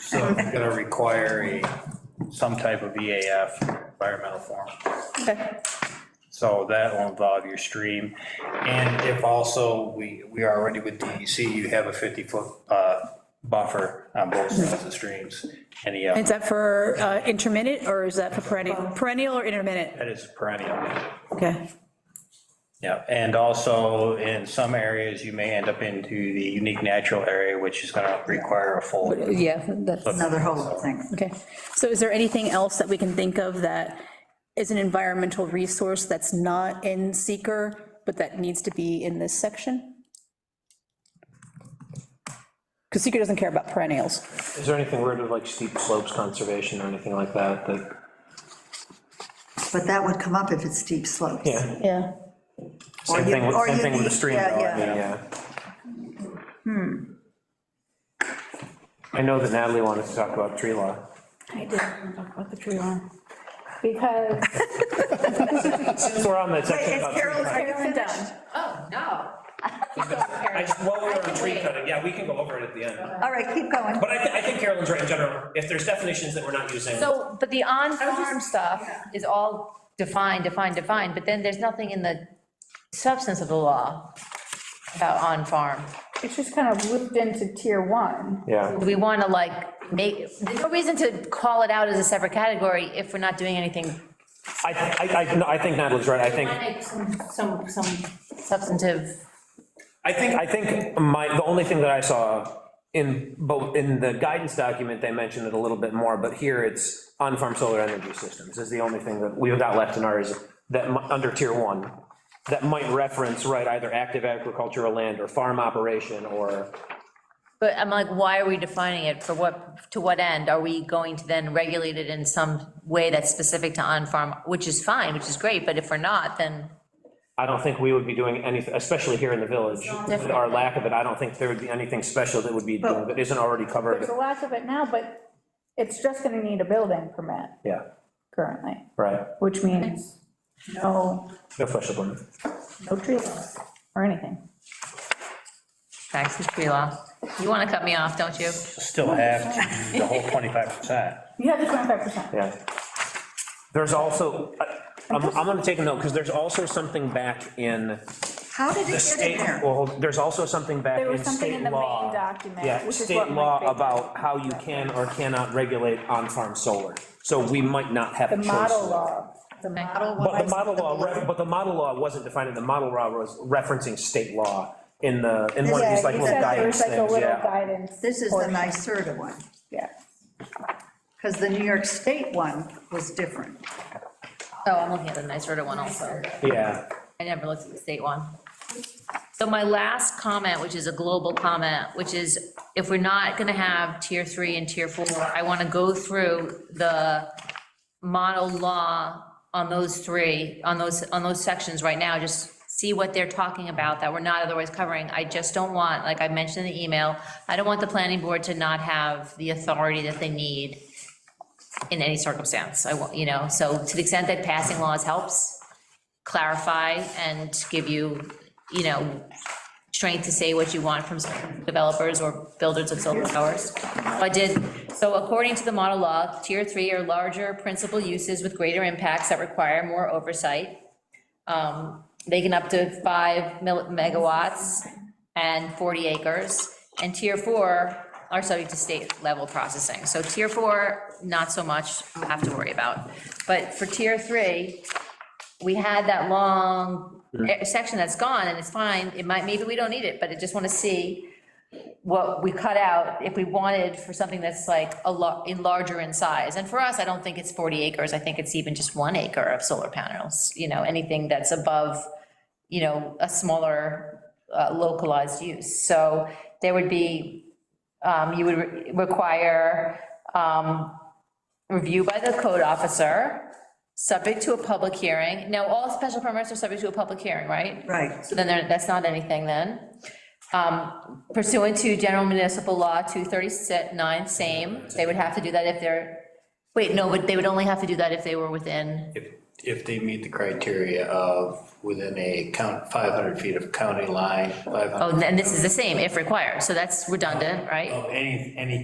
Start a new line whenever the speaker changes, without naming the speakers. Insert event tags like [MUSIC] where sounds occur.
So it's gonna require a, some type of EAF, environmental form.
Okay.
So that will involve your stream. And if also, we, we are already with DEC, you have a 50-foot buffer on both sides of the streams. And
Is
yeah,
that for uh, intermittent or is that for perennial? Perennial or intermittent?
that is perennial.
Okay.
Yeah, and also in some areas, you may end up into the unique natural area, which is gonna require a full.
Yeah, that's,
another whole thing.
okay. So is there anything else that we can think of that is an environmental resource that's not in seeker, but that needs to be in this section? Because seeker doesn't care about perennials.
Is there anything weird with like steep slopes conservation or anything like that, that,
But that would come up if it's steep slopes.
yeah,
Yeah.
Or
same
you-
thing, with-
or
same
you
thing with the
need-
stream.
yeah,
drawing,
yeah. Hmm.
I know that Natalie wanted to talk about tree law.
I didn't want to talk about the tree lawn. Because,
Since we're on the section
It's
about tree
Carol's, are
cutting.
you
I'm
finished?
done. Oh, [LAUGHS] no.
I just, while we're on tree cutting, yeah, we can go over it at the end.
All right, keep going.
But I, thi- I think Carolyn's right in general, if there's definitions that we're not using.
So, but the on-farm stuff is all defined, defined, defined, but then there's nothing in the substance of the law about on-farm.
It's just kind of looped into tier one.
Yeah,
We want to like make, there's no reason to call it out as a separate category if we're not doing anything.
I, I, I, no, I think Natalie's right, I think,
Like some, some some substantive,
I think, I think my, the only thing that I saw in both, in the guidance document, they mentioned it a little bit more, but here it's on-farm solar energy systems is the only thing that we've got left in ours that, mi- under tier one, that might reference, right, either active agricultural land or farm operation or,
but I'm like, why are we defining it? For what, to what end? Are we going to then regulate it in some way that's specific to on-farm, which is fine, which is great, but if we're not, then.
I don't think we would be doing anything, especially here in the village, with our lack of it, I don't think there would be anything special that would be, doing that isn't already covered,
There's a lack of it now, but it's just gonna need a building permit
yeah,
currently,
right,
which means no,
no special permit.
no tree laws or anything.
Back to tree law. You want to cut me off, don't you?
Still have to do the whole 25%.
You have the twenty-five percent.
Yeah. There's also, I- I'm, I'm gonna take a note, because there's also something back in
How did it get
the
in
state,
there?
well, there's also something back
There was
in
something in
state
the main
law.
document,
Yeah,
which is what
state
Mike
law
Baker-
about how you can or cannot regulate on-farm solar, so we might not have a
The
choice.
model law, the model law.
But the model law, re- but the model law wasn't defining, the model law was referencing state law in the, in one of
Yeah,
these like
he
It
little
said there
guidance
was like a
things,
little
yeah.
guidance.
This is the
portion.
NYSERDA one,
Yeah.
because the New York State one was different.
Oh, I'm looking at the NYSERDA one also.
Yeah,
I never looked at the state one. So my last comment, which is a global comment, which is if we're not gonna have tier three and tier four, I wanna go through the model law on those three, on those, on those sections right now, just see what they're talking about that we're not otherwise covering. I just don't want, like I mentioned in the email, I don't want the planning board to not have the authority that they need in any circumstance. I want, you know, so to the extent that passing laws helps, clarify and give you, you know, strength to say what you want from developers or builders of solar towers. I did, so according to the model law, tier three are larger principal uses with greater impacts that require more oversight. Um, They can up to five mil- megawatts and 40 acres. And tier four are subject to state level processing. So tier four, not so much, have to worry about. But for tier three, we had that long eh, section that's gone, and it's fine, it might, maybe we don't need it, but I just want to see what we cut out, if we wanted for something that's like a lot, in larger in size. And for us, I don't think it's 40 acres, I think it's even just one acre of solar panels, you know, anything that's above, you know, a smaller uh, localized use. So there would be, um, you would re- require um, review by the code officer, Subject to a public hearing. Now, all special permits are subject to a public hearing, right?
Right.
So then there- that's not anything then. Um, Pursuant to general municipal law 239, same, they would have to do that if they're, wait, no, but they would only have to do that if they were within,
If, if they meet the criteria of within a count, 500 feet of county line, 500
oh, and this is the same, if required. So that's redundant, right?
of any, any